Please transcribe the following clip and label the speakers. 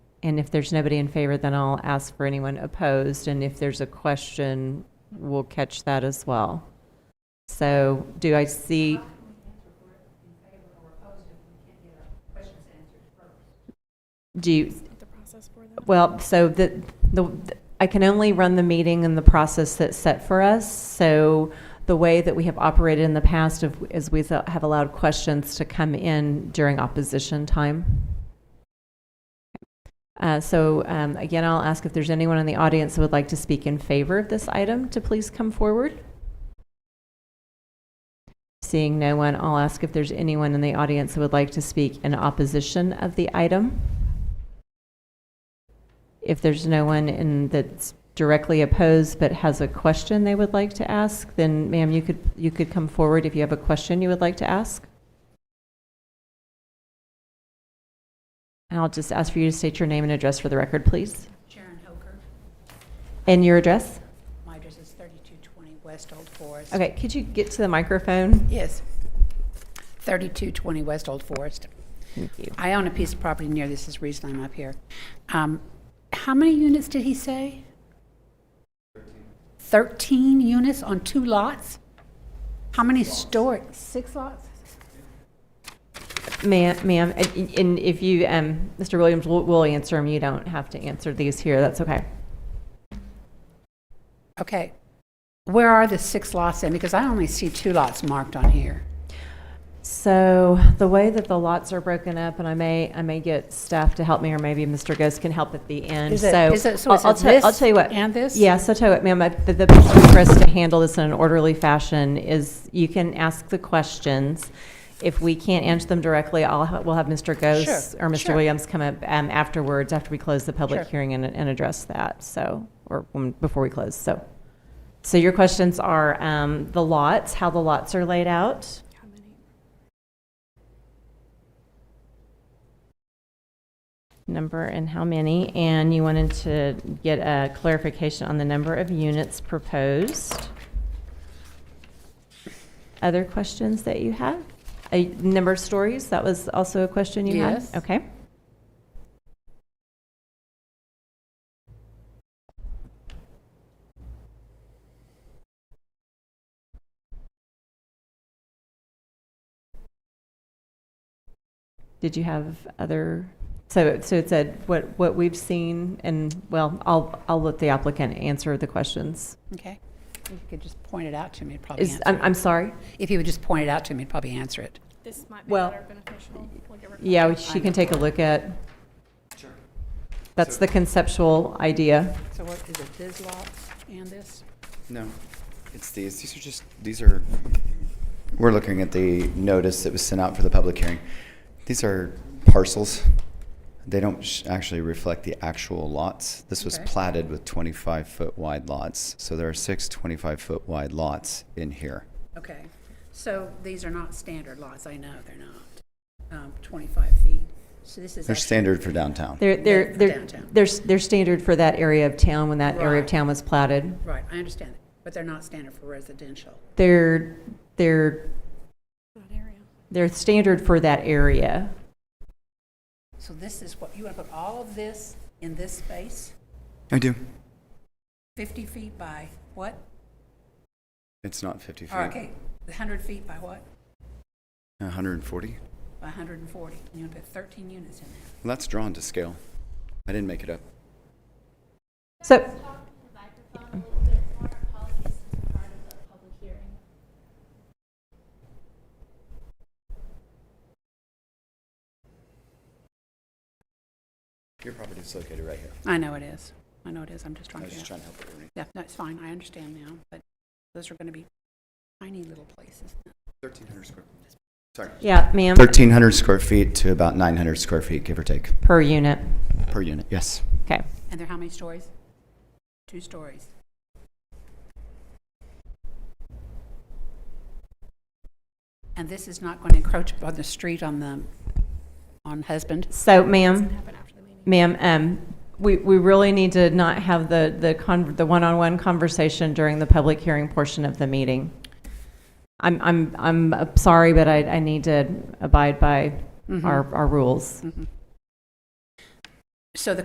Speaker 1: And if there's nobody in favor, then I'll ask for anyone opposed, and if there's a question, we'll catch that as well. So do I see? Do you,
Speaker 2: The process for them.
Speaker 1: well, so the, the, I can only run the meeting in the process that's set for us. So the way that we have operated in the past of- is we have allowed questions to come in during opposition time. Uh, So um, again, I'll ask if there's anyone in the audience who would like to speak in favor of this item to please come forward. Seeing no one, I'll ask if there's anyone in the audience who would like to speak in opposition of the item. If there's no one in that's directly opposed but has a question they would like to ask, then ma'am, you could, you could come forward if you have a question you would like to ask. And I'll just ask for you to state your name and address for the record, please.
Speaker 3: Sharon Hoker.
Speaker 1: And your address?
Speaker 3: My address is 3220 West Old Forest.
Speaker 1: Okay, could you get to the microphone?
Speaker 3: Yes. 3220 West Old Forest.
Speaker 1: Thank you.
Speaker 3: I own a piece of property near this, is the reason I'm up here. Um, How many units did he say? 13 units on two lots? How many storage? Six lots?
Speaker 1: Ma'am, ma'am, and- and if you, um, Mr. Williams, we'll, we'll answer them. You don't have to answer these here. That's okay.
Speaker 3: Okay. Where are the six lots in? Because I only see two lots marked on here.
Speaker 1: So the way that the lots are broken up, and I may, I may get staff to help me, or maybe Mr. Ghost can help at the end.
Speaker 3: Is it-
Speaker 1: So
Speaker 3: is it- so
Speaker 1: I'll-
Speaker 3: is it
Speaker 1: I'll tell- I'll
Speaker 3: this
Speaker 1: tell you what.
Speaker 3: and this?
Speaker 1: Yeah, so tell you what, ma'am, I- the, the best way for us to handle this in an orderly fashion is you can ask the questions. If we can't answer them directly, I'll, ha- we'll have Mr. Ghost
Speaker 3: Sure,
Speaker 1: or Mr.
Speaker 3: sure.
Speaker 1: Williams come up um, afterwards, after we close the public
Speaker 3: Sure.
Speaker 1: hearing and, and address that, so, or when- before we close, so. So your questions are um, the lots, how the lots are laid out.
Speaker 2: How many?
Speaker 1: number and how many, and you wanted to get a clarification on the number of units proposed. Other questions that you have? A number of stories, that was also a question you had?
Speaker 3: Yes.
Speaker 1: Okay. Did you have other, so, so it said what, what we've seen, and, well, I'll, I'll let the applicant answer the questions.
Speaker 3: Okay. If you could just point it out to me, it'd probably
Speaker 1: Is,
Speaker 3: answer
Speaker 1: I'm,
Speaker 3: it.
Speaker 1: I'm sorry?
Speaker 3: If you would just point it out to me, I'd probably answer it.
Speaker 2: This might be
Speaker 1: Well,
Speaker 2: better beneficial. We'll give her-
Speaker 1: Yeah, she can take a look at. Sure. That's the conceptual idea.
Speaker 3: So what, is it this lot and this?
Speaker 4: No, it's these. These are just, these are, we're looking at the notice that was sent out for the public hearing. These are parcels. They don't sh- actually reflect the actual lots. This was
Speaker 3: Okay.
Speaker 4: platted with 25-foot wide lots, so there are six 25-foot wide lots in here.
Speaker 3: Okay, so these are not standard lots, I know they're not, um, 25 feet. So this is.
Speaker 4: They're
Speaker 3: actually-
Speaker 4: standard for downtown.
Speaker 1: They're, they're,
Speaker 3: For
Speaker 1: they're,
Speaker 3: downtown.
Speaker 1: they're, they're standard for that area of town when that area of
Speaker 3: Right.
Speaker 1: town was platted.
Speaker 3: Right, I understand, that, but they're not standard for residential.
Speaker 1: They're, they're,
Speaker 2: That area.
Speaker 1: they're standard for that area.
Speaker 3: So this is what, you want to put all of this in this space,
Speaker 4: I do.
Speaker 3: 50 feet by what?
Speaker 4: It's not 50 feet.
Speaker 3: Or, Oh, Okay, 100 feet by what?
Speaker 4: 140.
Speaker 3: By 140. And you want to put 13 units in there.
Speaker 4: Well, That's drawn to scale. I didn't make it up.
Speaker 1: So,
Speaker 4: Your property is located right here.
Speaker 3: I know it is, I know it is, I'm just
Speaker 4: I
Speaker 3: trying
Speaker 4: was
Speaker 3: to
Speaker 4: just
Speaker 3: figure out.
Speaker 4: trying to help everybody.
Speaker 3: Yeah, that's fine, I understand now, but those are going to be tiny little places.
Speaker 4: 1,300 square. Sorry.
Speaker 1: yeah, ma'am,
Speaker 4: 1,300 square feet to about 900 square feet, give or take,
Speaker 1: per unit.
Speaker 4: per unit, yes.
Speaker 1: Okay.
Speaker 3: And they're how many stories? Two stories. And this is not going to encroach on the street on the, on husband?
Speaker 1: So, ma'am,
Speaker 2: Doesn't happen after the meeting.
Speaker 1: Ma'am, um, we, we really need to not have the, the con, the one-on-one conversation during the public hearing portion of the meeting. I'm, I'm, I'm uh, sorry, but I, I need
Speaker 3: Mm-hmm.
Speaker 1: to abide by our, our rules.
Speaker 3: Mhm. Mm-hmm. So the